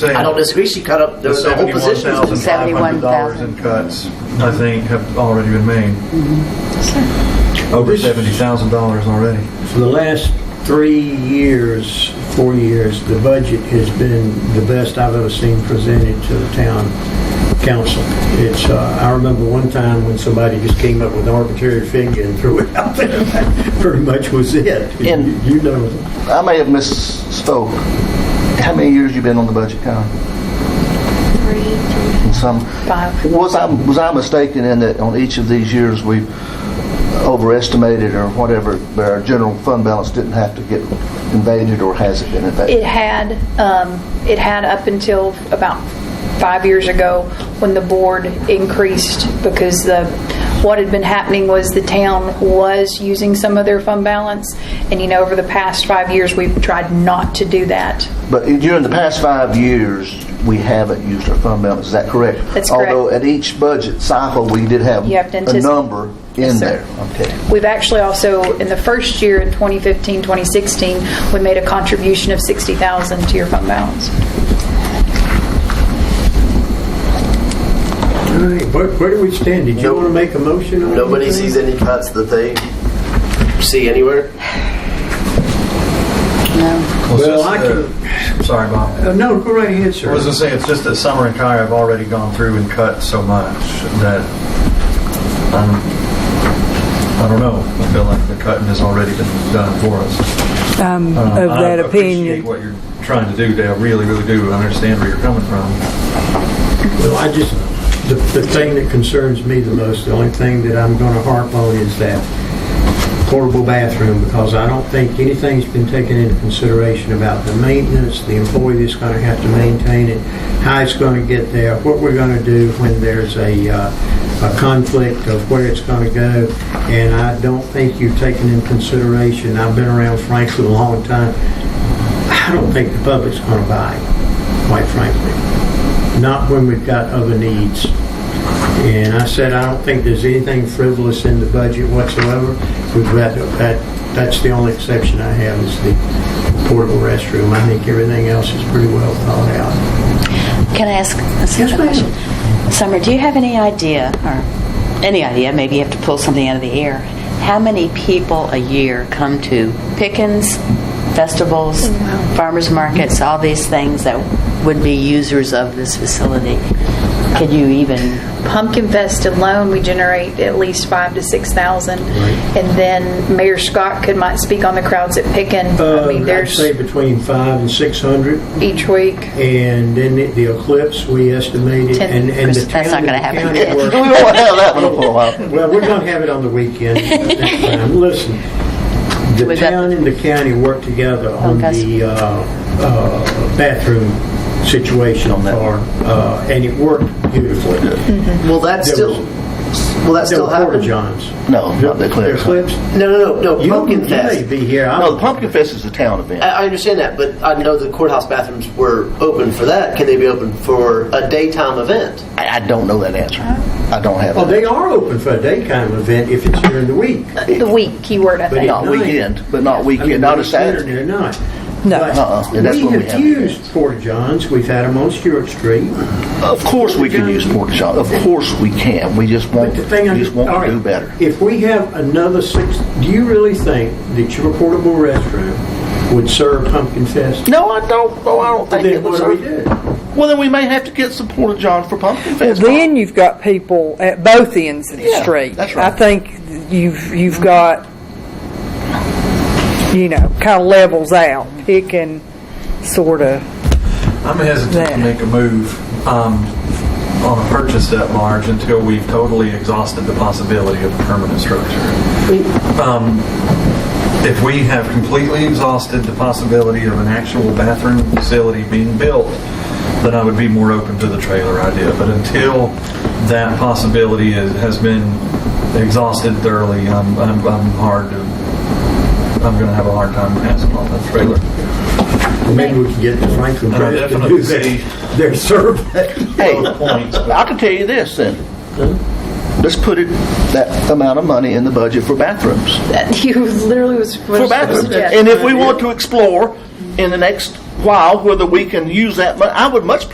saying. I don't disagree. She cut up the, The the whole seventy-one position. thousand five hundred dollars $71,500 in cuts, I think, have already been made. Over seventy thousand dollars already. For the last three years, four years, the budget has been the best I've ever seen presented to the town council. It's, uh, I remember one time when somebody just came up with an arbitrary figure and threw it out there. That Pretty much was it. And- You know, I may have misspoke. How many years you been on the budget, Con? Three, And some. five. Was I was I mistaken in that on each of these years we overestimated or whatever, but our general fund balance didn't have to get invaded or has it been invaded? It had, um, it had up until about five years ago when the board increased because the, what had been happening was the town was using some of their fund balance. And you know, over the past five years, we've tried not to do that. But during the past five years, we haven't used our fund balance, is that correct? That's correct. Although at each budget cycle, we did have You have to a antici- number Yes, in sir. there. Okay. We've actually also, in the first year, in 2015, 2016, we made a contribution of 60,000 to your fund balance. all right, where, where do we stand? Did you want to make a motion on Nobody anything? sees any cuts that they see anywhere. Well, Well, since I the- can, Sorry, Bob. uh, no, go right ahead, I sir. was gonna say, it's just that Summer and Kai have already gone through and cut so much that, um, I don't know. I feel like the cutting has already been done for us. Um, I'm of that I appreciate opinion. what you're trying to do, Dale. I really, really do. I understand where you're coming from. Well, I just, the, the thing that concerns me the most, the only thing that I'm going to harp on is that portable bathroom, because I don't think anything's been taken into consideration about the maintenance, the employee that's going to have to maintain it, how it's going to get there, what we're going to do when there's a, uh, a conflict of where it's going to go. And I don't think you've taken into consideration, I've been around Franklin a long time, I don't think the public's going to buy, it, quite frankly. Not when we've got other needs. And I said, I don't think there's anything frivolous in the budget whatsoever. We've got, that, that's the only exception I have is the portable restroom. I think everything else is pretty well thought out. Can I ask a Yes, simple ma'am. question? Summer, do you have any idea, or any idea, maybe you have to pull something out of the air, how many people a year come to Pickens, festivals, Oh, farmers markets, all these things that would be users of this facility? Could you even, Pumpkin Fest alone, we generate at least five to 6,000. And then Mayor Scott could might speak on the crowds at Picken. I mean, Uh, I'd there's say between five and 600. each week. And then the- the eclipse, we estimated, Ten- and and the Chris, that's town- not gonna the happen. county worked- We won't have that one for a while. Well, we're going to have it on the weekend. next time. Listen, the We got- town and the county work together on Okay. the uh, uh, bathroom situation On that. for, uh, and it worked beautifully. Well, that's There still. was- Will that There still were happen? porta-johns. No, not the They're Eclipse. clips. No, no, no, no. You Pumpkin you Fest. may be here. I No, don't- the Pumpkin Fest is a town event. I I understand that, but I know the courthouse bathrooms were open for that. Can they be open for a daytime event? I, I don't know that answer. I don't have Well, that. Oh, they are open for a daytime event if it's during the week. The week you word, I But think. Not night. weekend, but not I mean, weekend, not a whether it's there Saturday. or not. No. But Uh-uh, and that's what we We have have. used porta-johns. We've had them on Stewart Street. Of course we can use pork chop. Of course we can. We just want, But the thing, we just all want right, to do better. If we have another six, do you really think that your portable restroom would serve Pumpkin Fest? No, I don't, oh, I don't think it Then what was. do we do? Well, then we may have to get some porta john for pumpkin Well, fest. then you've got people at both ends of the Yeah, street. that's right. I think you've you've got you know kind of levels out. It can sort of I'm hesitant to There. make a move um, on a purchase at large until we've totally exhausted the possibility of a permanent structure. Um, If we have completely exhausted the possibility of an actual bathroom facility being built, then I would be more open to the trailer idea. But until that possibility is- has been exhausted thoroughly, I'm I'm- I'm hard to, I'm going to have a hard time passing on the trailer. Well, Maybe we can get the Franklin I Press to definitely do see- their, their survey. Hey, Points, but- I can tell you this then. Let's put it, that amount of money in the budget for bathrooms. That You literally was. For bathrooms. And if we want to explore in the next while whether we can use that money. I would much